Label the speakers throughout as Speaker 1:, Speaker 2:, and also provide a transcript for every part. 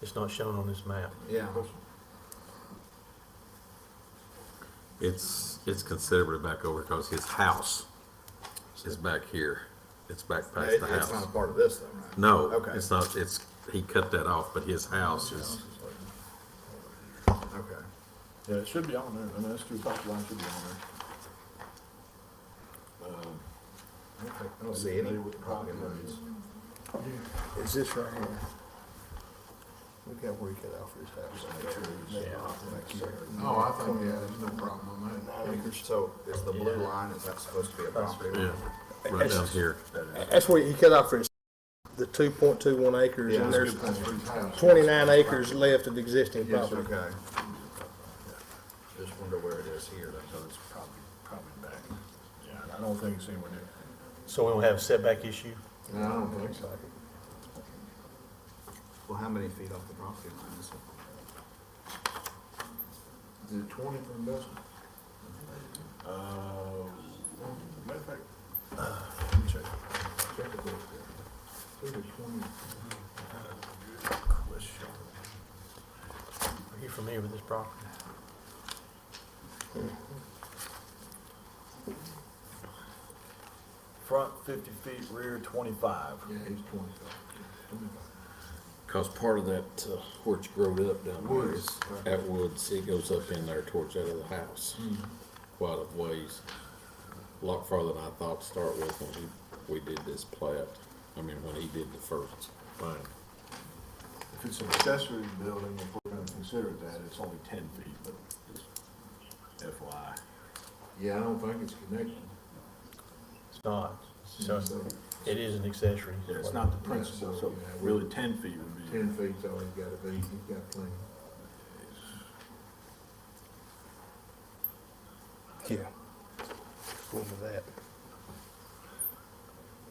Speaker 1: It's not shown on this map.
Speaker 2: Yeah.
Speaker 3: It's, it's considerably back over because his house is back here. It's back past
Speaker 2: It-
Speaker 3: the
Speaker 2: It's not a
Speaker 3: house.
Speaker 2: part of this though, right?
Speaker 3: No,
Speaker 2: Okay.
Speaker 3: it's not, it's, he cut that off, but his house is,
Speaker 2: Okay.
Speaker 4: Yeah, it should be on there, I mean, that's two property lines should be on there. Um,
Speaker 2: I don't think- I don't see any problem with this.
Speaker 5: It's this right here. Look how we cut out for his house.
Speaker 6: Oh, I think, yeah, there's no problem on that.
Speaker 2: So is the blue line, is that supposed to be a property?
Speaker 3: yeah,
Speaker 2: line?
Speaker 3: right down here.
Speaker 5: That's where he cut out for his, the two point two one acres
Speaker 2: Yeah.
Speaker 5: and there's
Speaker 6: That's three times.
Speaker 5: twenty-nine acres left of existing
Speaker 2: Yes,
Speaker 5: property.
Speaker 2: okay. Just wonder where it is here, though.
Speaker 4: It's probably, probably back, yeah, I don't think it's anywhere near.
Speaker 1: So we don't have a setback issue?
Speaker 6: No, I don't think so.
Speaker 2: Well, how many feet off the property line is it?
Speaker 6: Is it twenty for investment?
Speaker 4: Uh, matter of fact,
Speaker 6: Check it book there. Think it's 20.
Speaker 1: Are you familiar with this property?
Speaker 4: front fifty feet, rear twenty-five.
Speaker 6: Yeah, it's twenty.
Speaker 3: Because part of that, uh, where it's growed up down there is
Speaker 6: Woods, right.
Speaker 3: at Woods, it goes up in there towards that other house.
Speaker 2: Hmm.
Speaker 3: Quite a ways, a lot farther than I thought to start with when he, we did this plat. I mean, when he did the first thing.
Speaker 6: If it's an accessory building, if we're gonna consider that, it's only ten feet, but
Speaker 4: That's why.
Speaker 6: yeah, I don't think it's connected.
Speaker 1: It's not. So it is an accessory.
Speaker 4: Yeah, it's not the principal, so really ten feet would be.
Speaker 6: Ten feet's all he's gotta be, he's got plenty.
Speaker 5: Yeah. Go over that.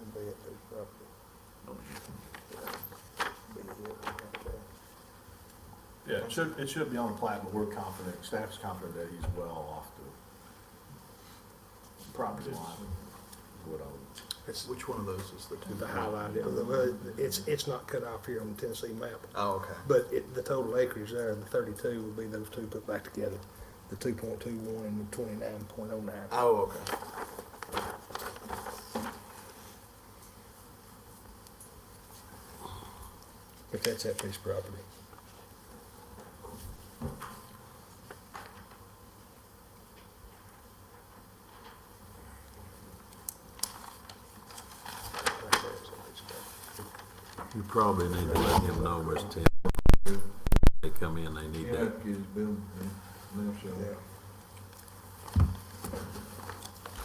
Speaker 5: And be at the property. Be here, right there.
Speaker 4: Yeah, it should, it should be on the plat, but we're confident, staff's confident that he's well off the property line. What I would-
Speaker 5: It's
Speaker 2: Which one of those is the two?
Speaker 5: the highlight, well, it's, it's not cut off here on the Tennessee map.
Speaker 2: Oh, okay.
Speaker 5: But it, the total acreage there, the thirty-two would be those two put back together, the two point two one and the twenty-nine point oh nine.
Speaker 2: Oh, okay.
Speaker 5: But that's that piece of property.
Speaker 3: You probably need to let him know, Mr. Tim. They come in, they need
Speaker 6: He'd
Speaker 3: that
Speaker 6: have to get his building, yeah, left
Speaker 5: Yeah.
Speaker 6: side.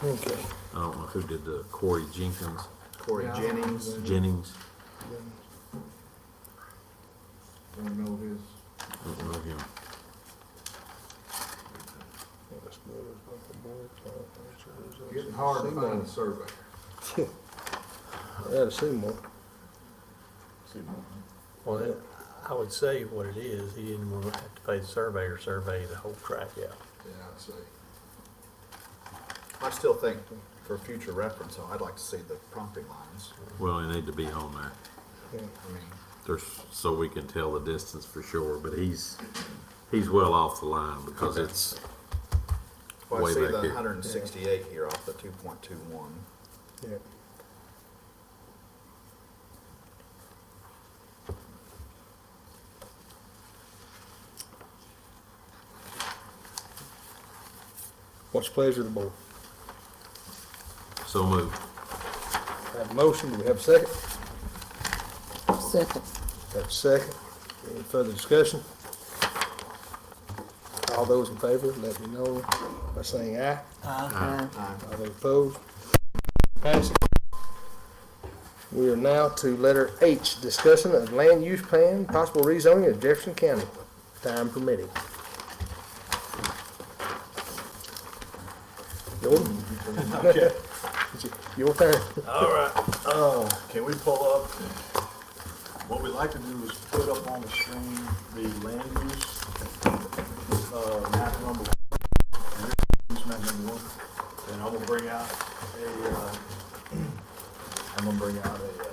Speaker 5: Okay.
Speaker 3: I don't know who did the Corey Jenkins,
Speaker 2: Corey
Speaker 6: Yeah.
Speaker 2: Jennings.
Speaker 3: Jennings,
Speaker 6: Don't know his,
Speaker 3: I don't know him.
Speaker 6: getting hard to find a survey.
Speaker 5: Yeah, Seymour.
Speaker 4: see more.
Speaker 1: Well, it- I would say what it is, he didn't want to have to pay the surveyor, survey the whole track out.
Speaker 6: Yeah, I'd say.
Speaker 2: I still think for future reference, though, I'd like to see the property lines.
Speaker 3: Well, they need to be on there.
Speaker 5: Yeah.
Speaker 2: I mean,
Speaker 3: There's, so we can tell the distance for sure, but he's, he's well off the line because it's,
Speaker 2: well, I
Speaker 3: Way
Speaker 2: see
Speaker 3: back
Speaker 2: the
Speaker 3: here.
Speaker 2: 168 here off the 2.21.
Speaker 5: Yeah. What's the pleasure of the board?
Speaker 3: so moved.
Speaker 5: Have a motion, do we have a second?
Speaker 7: Second.
Speaker 5: Have a second. Any further discussion? All those in favor, let me know by saying aye.
Speaker 7: Aye.
Speaker 5: All those opposed? Passed. We are now to letter H, discussion of land use plan, possible rezoning of Jefferson County, time permitting. Jordan? Your turn.
Speaker 4: All right, uh, can we pull up, what we'd like to do is put up on the screen the land use, uh, map number, one, use map number one, and I'm gonna bring out a, uh, I'm gonna bring out a, uh,